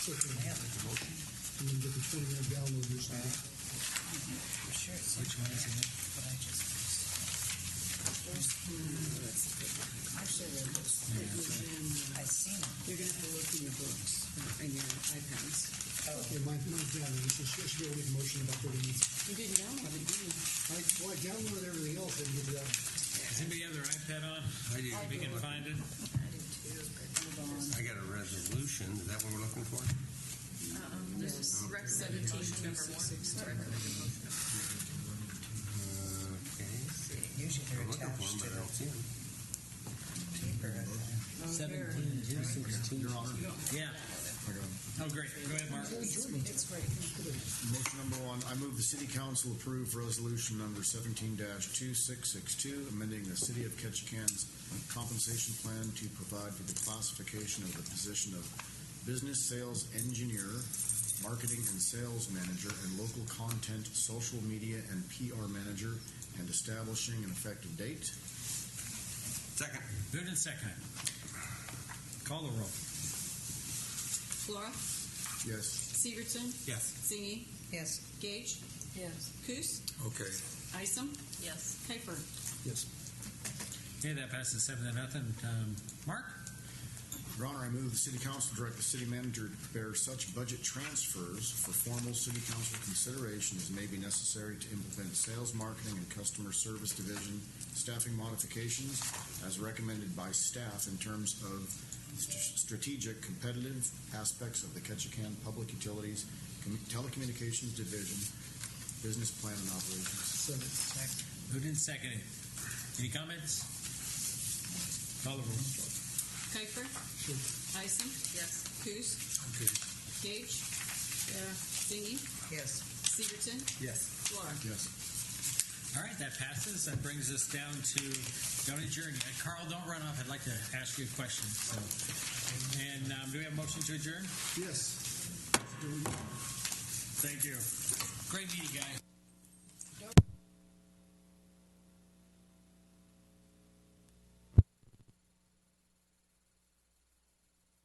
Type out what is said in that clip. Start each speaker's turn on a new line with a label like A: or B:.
A: I'm gonna get the twenty-one download this time.
B: Which one is it? But I just. I seen it.
C: You're gonna have to look in your books uh, and your iPads.
A: Yeah, mine, mine's down, and it's, it's really good motion about thirty minutes.
C: You didn't download it, did you?
A: I, well, I downloaded everything else, and get it out.
D: Does anybody have their iPad on? I do. We can find it.
E: I got a resolution. Is that what we're looking for?
F: This is recommended motion number one. Recommended motion number
E: Okay.
B: Usually
E: I'm
B: they're
E: looking for
B: attached
E: them,
B: to
E: but
B: the
E: I don't see them.
B: paper.
G: Seventeen, two sixteen.
D: Yeah. Oh, great. Go ahead, Mark.
B: It's right.
H: Motion number one, I move the city council approve resolution number seventeen two six six two, amending the city of Ketchikan's compensation plan to provide for the classification of the position of business sales engineer, marketing and sales manager, and local content, social media, and PR manager, and establishing an effective date.
E: Second.
D: Moved and seconded. Call the roll.
C: Flora,
H: Yes.
C: Severson,
D: Yes.
C: Zingy,
B: Yes.
C: Gage,
F: one. Yes.
C: Coos,
E: Okay.
C: Isom,
F: Yes.
C: Kuiper.
A: Yes.
D: Okay, that passes seven to nothing. Um, Mark?
H: Your Honor, I move the city council direct the city manager to prepare such budget transfers for formal city council consideration as may be necessary to implement sales, marketing, and customer service division staffing modifications as recommended by staff in terms of st- strategic competitive aspects of the Ketchikan Public Utilities Com- Telecommunications Division Business Plan and Operations.
A: Seven.
D: Moved and seconded. Any comments? Call the roll.
C: Kuiper,
A: Sure.
C: Isom,
F: Yes.
C: Coos,
E: Okay.
C: Gage, Zingy,
B: Yes.
C: Severson,
D: Yes.
C: Flora.
H: Yes.
D: All right, that passes. That brings us down to don't adjourn yet. Carl, don't run off. I'd like to ask you a question. So, and um, do we have a motion to adjourn?
A: Yes.
D: Thank you. Great meeting, guys.